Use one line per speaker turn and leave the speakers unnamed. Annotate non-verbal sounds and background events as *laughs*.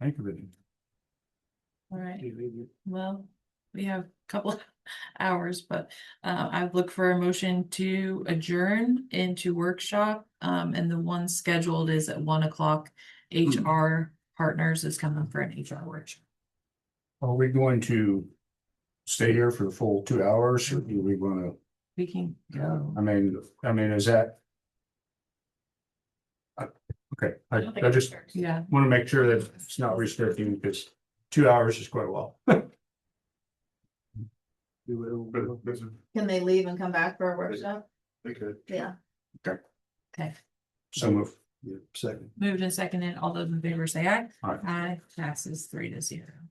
Thank you.
All right, well, we have a couple *laughs* hours, but uh, I'd look for a motion to adjourn into workshop. Um, and the one scheduled is at one o'clock. HR Partners is coming for an HR workshop.
Are we going to stay here for the full two hours or do we wanna,
We can go.
I mean, I mean, is that? Uh, Okay, I, I just
Yeah,
wanna make sure that it's not restricting because two hours is quite a while.
Can they leave and come back for a workshop?
They could.
Yeah.
okay.
So move.
Second.
Moved and seconded. All those in favor say aye.
Aye.
Aye, passes three to zero.